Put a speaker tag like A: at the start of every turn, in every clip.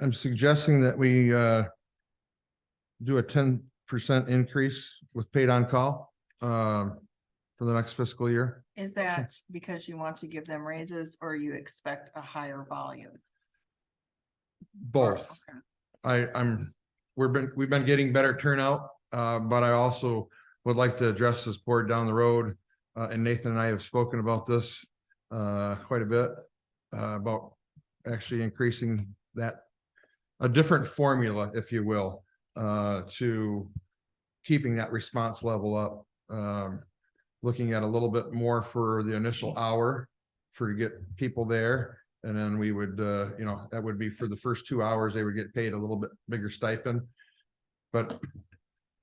A: I'm suggesting that we uh do a ten percent increase with paid on call um for the next fiscal year.
B: Is that because you want to give them raises or you expect a higher volume?
A: Both.
B: Okay.
A: I, I'm, we've been, we've been getting better turnout, uh, but I also would like to address this board down the road. Uh, and Nathan and I have spoken about this, uh, quite a bit, uh, about actually increasing that. A different formula, if you will, uh, to keeping that response level up. Um, looking at a little bit more for the initial hour for to get people there. And then we would, uh, you know, that would be for the first two hours, they would get paid a little bit bigger stipend. But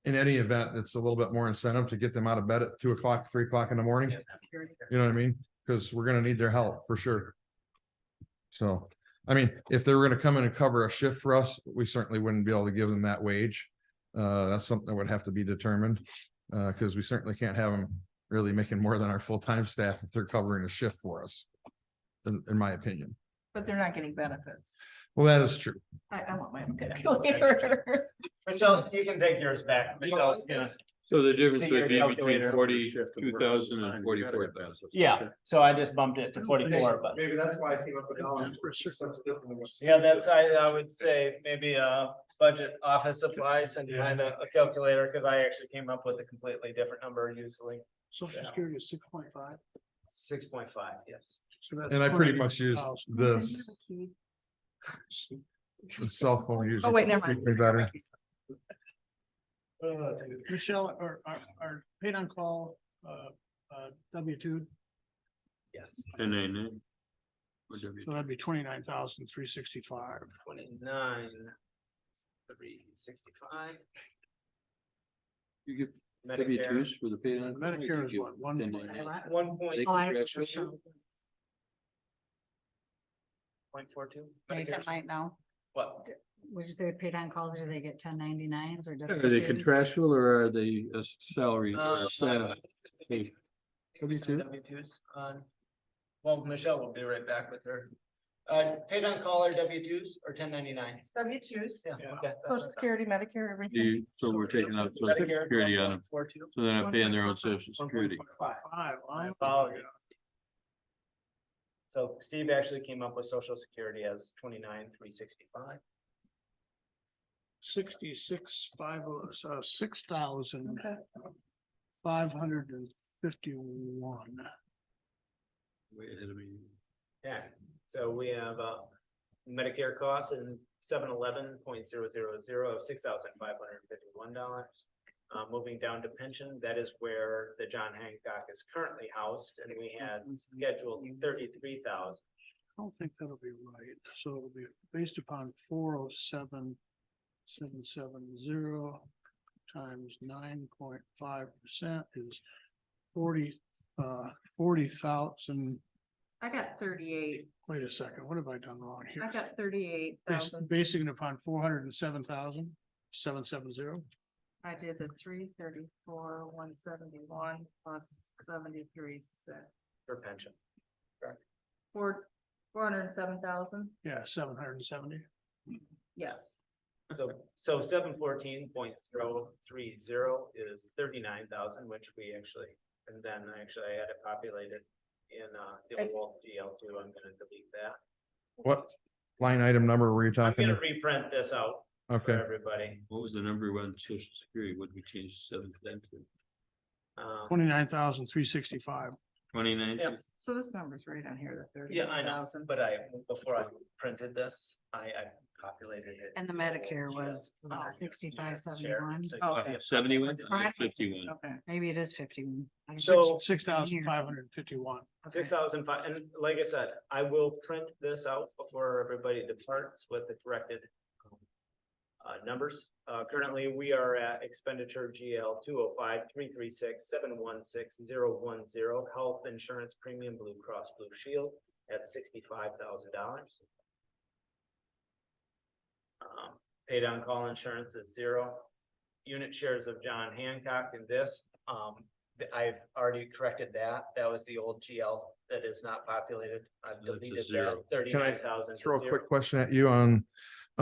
A: in any event, it's a little bit more incentive to get them out of bed at two o'clock, three o'clock in the morning. You know what I mean? Because we're gonna need their help for sure. So, I mean, if they were gonna come in and cover a shift for us, we certainly wouldn't be able to give them that wage. Uh, that's something that would have to be determined, uh, because we certainly can't have them really making more than our full-time staff if they're covering a shift for us. In, in my opinion.
B: But they're not getting benefits.
A: Well, that is true.
B: I, I want my own calculator.
C: Michelle, you can take yours back. Michelle's gonna.
D: So the difference
C: See your
D: would be
C: calculator.
D: between forty-two thousand and forty-four thousand.
C: Yeah, so I just bumped it to forty-four, but
A: Maybe that's why I came up with dollars. Yeah,
C: yeah, that's, I, I would say maybe a budget office supplies and kind of a calculator, because I actually came up with a completely different number usually.
E: Social
C: Yeah.
E: Security is six point five.
C: Six point five, yes.
A: And I pretty much used this the cell phone user.
B: Oh, wait, never
A: Keep me better.
B: mind.
E: Michelle, or our, our paid on call, uh, uh, W two,
C: Yes.
D: And I know. Whatever.
E: so that'd be twenty-nine thousand, three sixty-five.
C: Twenty-nine. Three sixty-five.
D: You give
C: Medicare.
D: W-2s for the paid on.
E: Medicare is what, one-
C: One point,
D: Like-
C: point four two.
F: Nathan might know,
C: What?
F: would you say paid on calls, do they get ten ninety nines or?
D: Are they contractual or are they uh, salary
C: Uh,
D: or staff? Hey,
C: Maybe some
D: W
C: W-2s on- Well, Michelle will be right back with her. Uh, pays on call or W twos or ten ninety nines?
B: W choose
C: Yeah.
E: Yeah.
C: okay, that's
B: social
C: what I thought.
B: security, Medicare,
D: do
B: everything.
D: you- So we're taking out social
C: Medicare,
D: security on them,
C: 1.42,
D: so they're not paying their own social security.
C: 1.45.
E: Five.
C: My
E: wow.
C: apologies. So Steve actually came up with social security as twenty-nine, three sixty-five.
E: Sixty-six, five, uh, six thousand,
B: Okay.
E: five hundred and fifty-one.
D: Way ahead of me.
C: Yeah, so we have, uh, Medicare costs in seven eleven point zero zero zero of six thousand five hundred and fifty-one dollars. Uh, moving down to pension, that is where the John Hancock is currently housed, and we had scheduled thirty-three thousand.
E: I don't think that'll be right, so it'll be based upon four oh seven, seven, seven, zero times nine point five percent is forty, uh, forty thousand,
B: I got thirty-eight,
E: wait a second, what have I done wrong here?
B: I got thirty-eight
E: Bas-
B: thousand.
E: Basing it upon four hundred and seven thousand, seven, seven, zero,
B: I did the three thirty-four, one seventy-one plus seventy-three,
C: For pension.
B: four, four hundred and seven thousand,
E: yeah, seven hundred and seventy.
B: yes.
C: So, so seven fourteen point zero three zero is thirty-nine thousand, which we actually, and then I actually I had it populated in, uh, the old DL two, I'm gonna delete that.
A: What line item number were you
C: I'm
A: talking?
C: gonna reprint this out for
A: Okay,
C: everybody.
D: What was the number one social security? What did we change seven to ten to?
C: Uh,
E: Twenty-nine thousand, three sixty-five,
D: Twenty-nine?
C: Yep.
B: So this number's right on here, the
C: Yeah,
B: thirty-eight
C: I know,
B: thousand.
C: but I, before I printed this, I, I populated it.
F: And the Medicare
C: Yeah.
F: was, uh,
C: Yeah,
F: 65,
C: share,
F: 71.
C: so-
B: Okay.
D: Uh, Seventy-one,
F: Right.
D: fifty-one.
B: Okay.
F: Maybe it is fifty-one. I don't
C: So-
F: know.
E: six thousand, five hundred and fifty-one.
F: Okay.
C: Six thousand five, and like I said, I will print this out before everybody departs with the corrected. um, Uh, numbers, uh, currently we are at expenditure GL two oh five three three six seven one six zero one zero. Health insurance premium Blue Cross Blue Shield at sixty-five thousand dollars. Paid on um, call insurance is zero. Unit shares of John Hancock in this, um, th- I've already corrected that. That was the old GL that is not populated. I've
D: That's a
C: deleted that
D: zero.
C: thirty-nine thousand.
A: throw a quick question at you on